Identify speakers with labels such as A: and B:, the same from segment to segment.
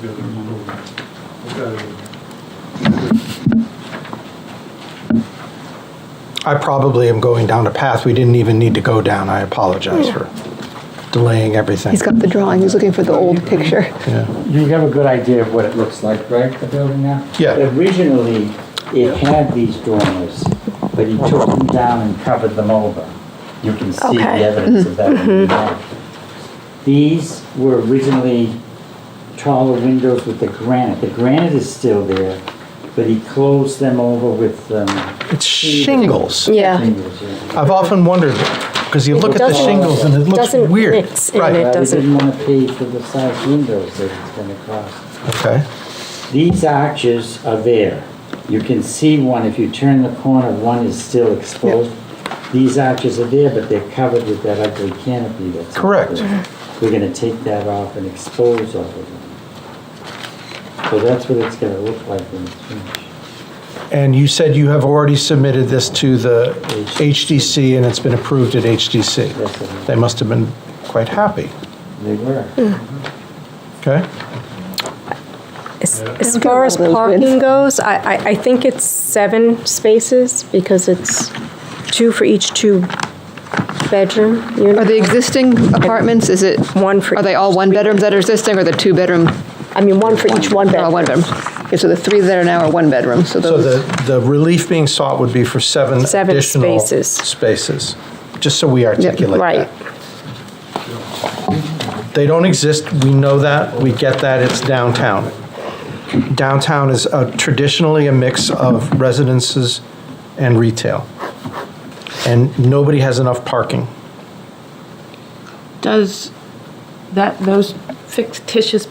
A: good. Okay.
B: I probably am going down a path we didn't even need to go down. I apologize for delaying everything.
C: He's got the drawing, he's looking for the old picture.
B: Yeah.
D: You have a good idea of what it looks like, right, the building now?
B: Yeah.
D: Originally, it had these dormers, but he took them down and covered them over. You can see the
C: Okay.
D: evidence of that. in
E: Mm-hmm.
D: the back. These were originally taller windows with the granite. The granite is still there, but he closed them over with, um.
B: It's shingles.
E: Yeah.
D: shingles, yeah.
B: I've often wondered because you
E: It
B: look at the
E: doesn't-
B: shingles and it looks
E: doesn't
B: weird.
E: mix in
B: right.
E: It
D: But he
E: doesn't-
D: didn't wanna pay for the size windows that it's gonna cost.
B: Okay.
D: These arches are there. You can see one, if you turn the corner, one is still exposed. These arches are there, but they're covered with that ugly canopy that's. up
B: Correct.
D: there. We're gonna take that off and expose all of them. So that's what it's gonna look like when it's finished.
B: And you said you have already submitted this to the HDC and it's been approved at HDC.
D: That's what
B: They must have been quite happy.
D: they were.
B: Okay.
E: As, as
C: Don't get
E: far
C: all
E: as
C: those
E: parking
C: wins.
E: goes, I, I, I think it's seven spaces because it's two for each two bedroom unit.
C: Are the existing apartments, is it,
E: One for.
C: are they all one bedrooms that are existing, or the two bedroom?
E: I mean, one for each one
C: They're all one
E: bedroom.
C: bedroom. Okay, so the three that are now are one bedroom, so
B: So
C: those,
B: the, the relief being sought would be for seven
E: Seven
B: additional
E: spaces.
B: spaces, just so we articulate
E: Right.
B: that. They don't exist, we know that, we get that, it's downtown. Downtown is uh, traditionally a mix of residences and retail. And nobody has enough parking.
F: Does that, those fictitious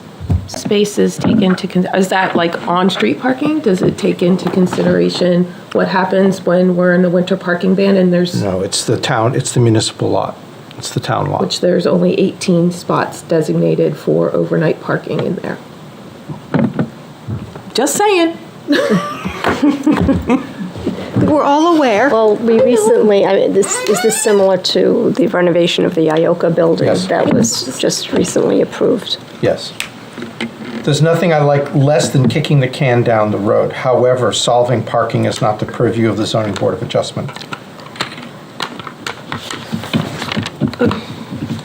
F: spaces take into, con- is that like on-street parking? Does it take into consideration what happens when we're in a winter parking ban and there's,
B: No, it's the town, it's the municipal lot, it's the town lot.
F: which there's only 18 spots designated for overnight parking in there? Just saying.
C: we're all aware.
E: Well, we recently, I mean, this, is this similar to the renovation of the Ioka building?
B: Yes.
E: That was just recently approved.
B: Yes. There's nothing I like less than kicking the can down the road. However, solving parking is not the purview of the zoning board of adjustment.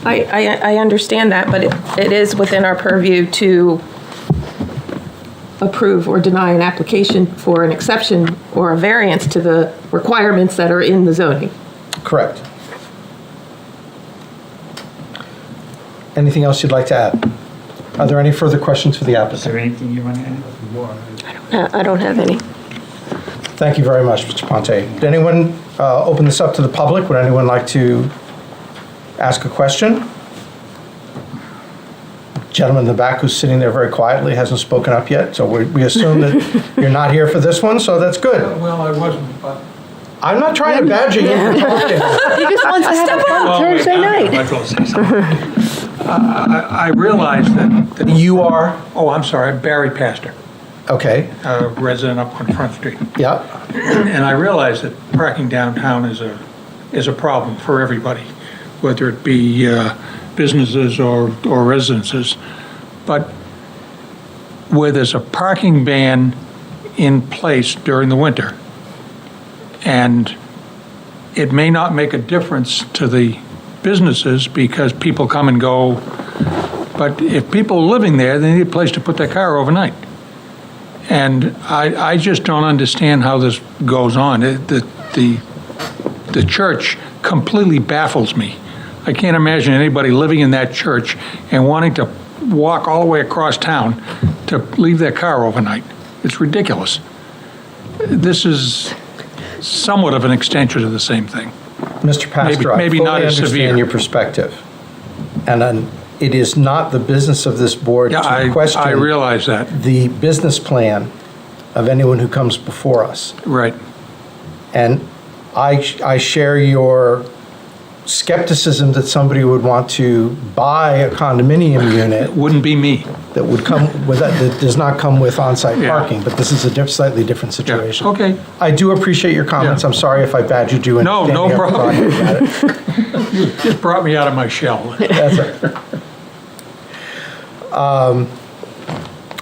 F: I, I, I understand that, but it- it is within our purview to approve or deny an application for an exception or a variance to the requirements that are in the zoning.
B: Correct. Anything else you'd like to add? Are there any further questions for the
D: Is
B: applicant?
D: there anything you wanna add?
E: Uh, I don't have any.
B: Thank you very much, Mr. Ponte. Did anyone uh, open this up to the public? Would anyone like to ask a question? Gentleman in the back who's sitting there very quietly hasn't spoken up yet, so we we assume that you're not here for this one, so that's good.
A: Well, I wasn't, but.
B: I'm not trying to badger you. for talking.
C: He just wants to have a fun Thursday night.
A: I realized that, that-
B: You are,
A: oh, I'm sorry, Barry Pastor,
B: okay,
A: uh, resident up on Front Street.
B: yeah,
A: And I realize that parking downtown is a, is a problem for everybody, whether it be uh, businesses or, or residences. But where there's a parking ban in place during the winter, and it may not make a difference to the businesses because people come and go, but if people are living there, they need a place to put their car overnight. And I, I just don't understand how this goes on. It- The, the, the church completely baffles me. I can't imagine anybody living in that church and wanting to walk all the way across town to leave their car overnight. It's ridiculous. This is somewhat of an extension of the same thing.
B: Mr. Pastor, I
A: maybe
B: fully
A: not as severe.
B: understand your perspective. And then it is not the business of this board
A: Yeah,
B: to
A: I,
B: question.
A: I realize that,
B: the business plan of anyone who comes before us.
A: right.
B: And I, I share your skepticism that somebody would want to buy a condominium
A: It
B: unit
A: wouldn't be me.
B: that would come with, that does not come with on-site
A: Yeah.
B: parking, but this is a diff- slightly different
A: Yeah,
B: situation.
A: okay.
B: I do appreciate your comments.
A: Yeah.
B: I'm sorry if I badgered you. in
A: No,
B: standing
A: no
B: up and
A: problem.
B: talking about it.
A: Just brought me out of my shell.
B: That's right. Um,